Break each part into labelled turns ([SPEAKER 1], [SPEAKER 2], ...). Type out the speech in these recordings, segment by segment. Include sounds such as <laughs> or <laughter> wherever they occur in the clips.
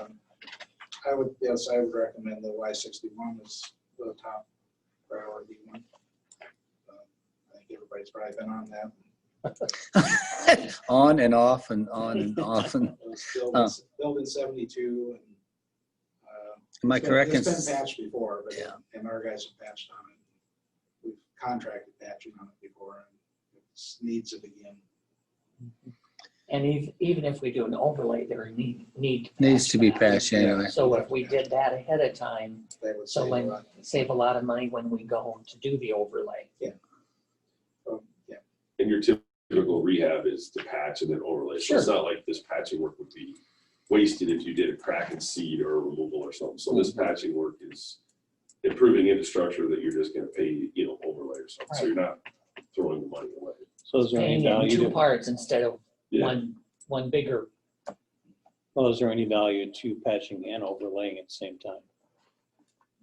[SPEAKER 1] Um, I would, yes, I would recommend the Y sixty-one is the top priority one. Um, I think everybody's probably been on that.
[SPEAKER 2] <laughs> on and off and on and off. And
[SPEAKER 1] It was Built in- built in seventy-two and. uh,
[SPEAKER 2] am I
[SPEAKER 1] it's been-
[SPEAKER 2] correct? in-
[SPEAKER 1] It's been patched before, but,
[SPEAKER 2] Yeah.
[SPEAKER 1] and our guys have patched on it. We've contracted patching on it before and it needs it again.
[SPEAKER 3] And even, even if we do an overlay, there need, need.
[SPEAKER 2] Needs to be
[SPEAKER 3] that.
[SPEAKER 2] patched anyway.
[SPEAKER 3] So if we did that ahead of time,
[SPEAKER 1] That would
[SPEAKER 3] So
[SPEAKER 1] save a
[SPEAKER 3] when-
[SPEAKER 1] lot.
[SPEAKER 3] save a lot of money when we go to do the overlay.
[SPEAKER 1] Um, Yeah,
[SPEAKER 4] And your typical rehab is to patch and then overlay. So it's
[SPEAKER 3] Sure.
[SPEAKER 4] not like this patching work would be wasted if you did a crack and seed or removal or something. So
[SPEAKER 5] Mm-hmm.
[SPEAKER 4] this patching work is improving infrastructure that you're just gonna pay, you know, overlay or something. So you're not throwing the money away.
[SPEAKER 5] So is there any
[SPEAKER 3] Paying in two
[SPEAKER 5] value, to-
[SPEAKER 3] parts instead of
[SPEAKER 4] Yeah.
[SPEAKER 3] one, one bigger.
[SPEAKER 5] well, is there any value to patching and overlaying at the same time?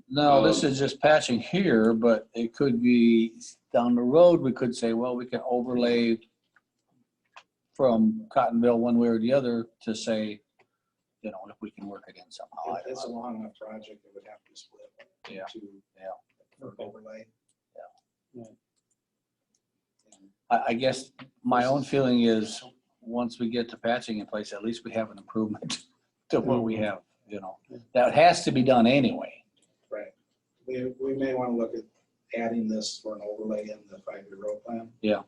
[SPEAKER 2] No, this
[SPEAKER 4] Um,
[SPEAKER 2] is just patching here, but it could be down the road, we could say, well, we can overlay from Cottonville one way or the other to say, you know, if we can work again somehow. Oh, I
[SPEAKER 1] If
[SPEAKER 2] don't
[SPEAKER 1] It's a
[SPEAKER 2] know.
[SPEAKER 1] long enough project, it would have to split.
[SPEAKER 2] Yeah.
[SPEAKER 1] into
[SPEAKER 2] Yeah.
[SPEAKER 1] For overlay.
[SPEAKER 5] Yeah.
[SPEAKER 2] I, I guess my own feeling is, once we get the patching in place, at least we have an improvement <laughs> to what we have, you know. That has to be done anyway.
[SPEAKER 1] We, we may want to look at adding this for an overlay in the five-year road plan.
[SPEAKER 2] Yeah.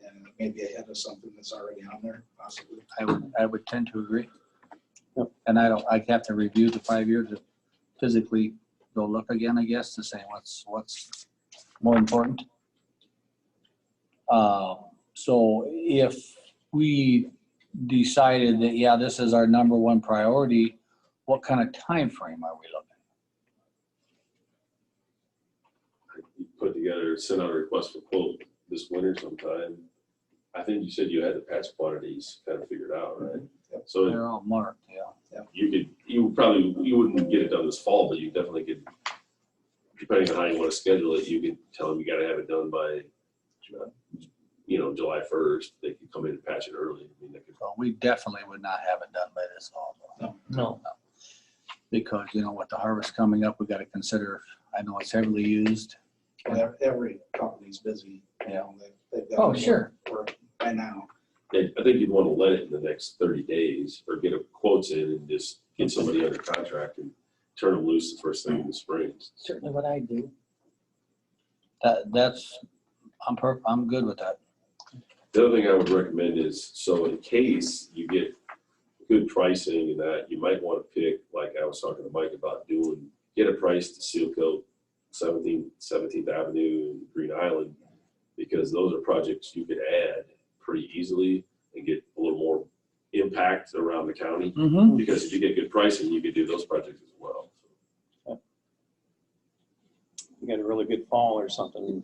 [SPEAKER 1] And maybe ahead of something that's already on there possibly.
[SPEAKER 2] I would, I would tend to agree.
[SPEAKER 5] Yep.
[SPEAKER 2] And I don't, I'd have to review the five years to physically go look again, I guess, to say what's, what's more important. Um, So if we decided that, yeah, this is our number one priority, what kind of time frame are we looking?
[SPEAKER 4] You Put together, send out a request for quote this winter sometime. I think you said you had the patch quantities kind of figured out, right?
[SPEAKER 5] Mm-hmm.
[SPEAKER 1] Yep.
[SPEAKER 4] So
[SPEAKER 2] They're all marked, yeah.
[SPEAKER 4] you could, you probably, you wouldn't get it done this fall, but you definitely could, depending on how you want to schedule it, you could tell them you gotta have it done by, you know, July first, they could come in and patch it early. I mean, they could,
[SPEAKER 2] So we definitely would not have it done by this fall. though.
[SPEAKER 3] No,
[SPEAKER 2] Because, you know, with the harvest coming up, we gotta consider, I know it's heavily used.
[SPEAKER 1] Well, Every company's busy. you know, they- they've got
[SPEAKER 3] oh, sure,
[SPEAKER 1] work By now.
[SPEAKER 4] they- I think you'd want to let it in the next thirty days or get a quotes in and just get somebody under contract and turn them loose the first thing in the spring.
[SPEAKER 3] certainly what I do.
[SPEAKER 2] That, that's, I'm per, I'm good with that.
[SPEAKER 4] The other thing I would recommend is, so in case you get good pricing and that, you might want to pick, like I was talking to Mike about doing, get a price to seal coat 17th, 17th Avenue and Green Island, because those are projects you could add pretty easily and get a little more impact around the county.
[SPEAKER 2] Mm-hmm.
[SPEAKER 4] Because if you get good pricing, you could do those projects as well.
[SPEAKER 5] You got a really good fall or something,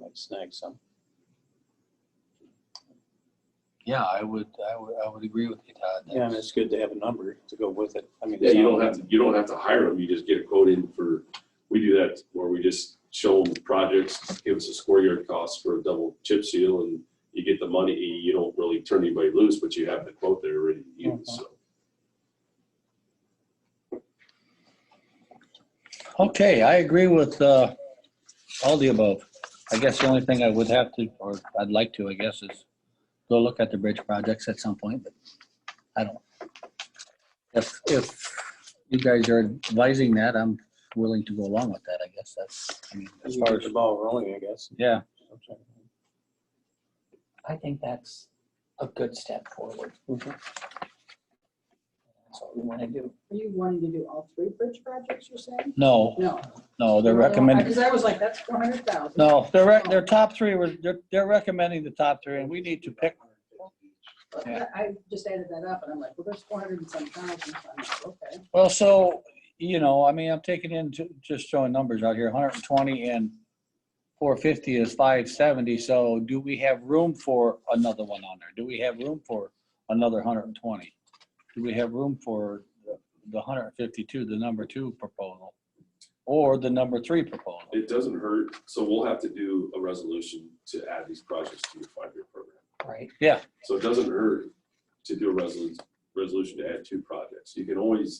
[SPEAKER 5] might snag some.
[SPEAKER 2] Yeah, I would, I would, I would agree with you, Todd.
[SPEAKER 5] Yeah, and it's good to have a number to go with it. I mean.
[SPEAKER 4] Yeah,
[SPEAKER 5] it's
[SPEAKER 4] you
[SPEAKER 5] not
[SPEAKER 4] don't have to, you don't have to hire them, you just get a quote in for, we do that where we just show them projects, give us a square yard cost for a double chip seal and you get the money, you don't really turn anybody loose, but you have the quote there already to use, so.
[SPEAKER 2] Okay, I agree with, uh, all the above. I guess the only thing I would have to, or I'd like to, I guess, is go look at the bridge projects at some point, but I don't. If, if you guys are advising that, I'm willing to go along with that, I guess. That's, I mean, as
[SPEAKER 5] You
[SPEAKER 2] far
[SPEAKER 5] get
[SPEAKER 2] as,
[SPEAKER 5] the ball rolling, I guess.
[SPEAKER 2] yeah,
[SPEAKER 3] I think that's a good step forward.
[SPEAKER 5] Mhm.
[SPEAKER 3] That's what we want to do.
[SPEAKER 6] Are you wanting to do all three bridge projects, you're saying?
[SPEAKER 2] no,
[SPEAKER 6] No.
[SPEAKER 2] no, they're recommending.
[SPEAKER 6] Because I was like, that's four hundred thousand.
[SPEAKER 2] No, they're, rec- their top three were, they're, they're recommending the top three and we need to pick. yeah.
[SPEAKER 6] I just added that up and I'm like, well, there's four hundred and some thousand. I'm like, okay.
[SPEAKER 2] Well, so, you know, I mean, I'm taking in, ju- just throwing numbers out here, hundred and twenty and four fifty is five seventy. So do we have room for another one on there? Do we have room for another hundred and twenty? Do we have room for the- the hundred and fifty-two, the number two proposal? Or the number three proposal?
[SPEAKER 4] It doesn't hurt, so we'll have to do a resolution to add these projects to your five-year program.
[SPEAKER 3] Right,
[SPEAKER 4] So it doesn't hurt to do a resolution, resolution to add two projects. You can always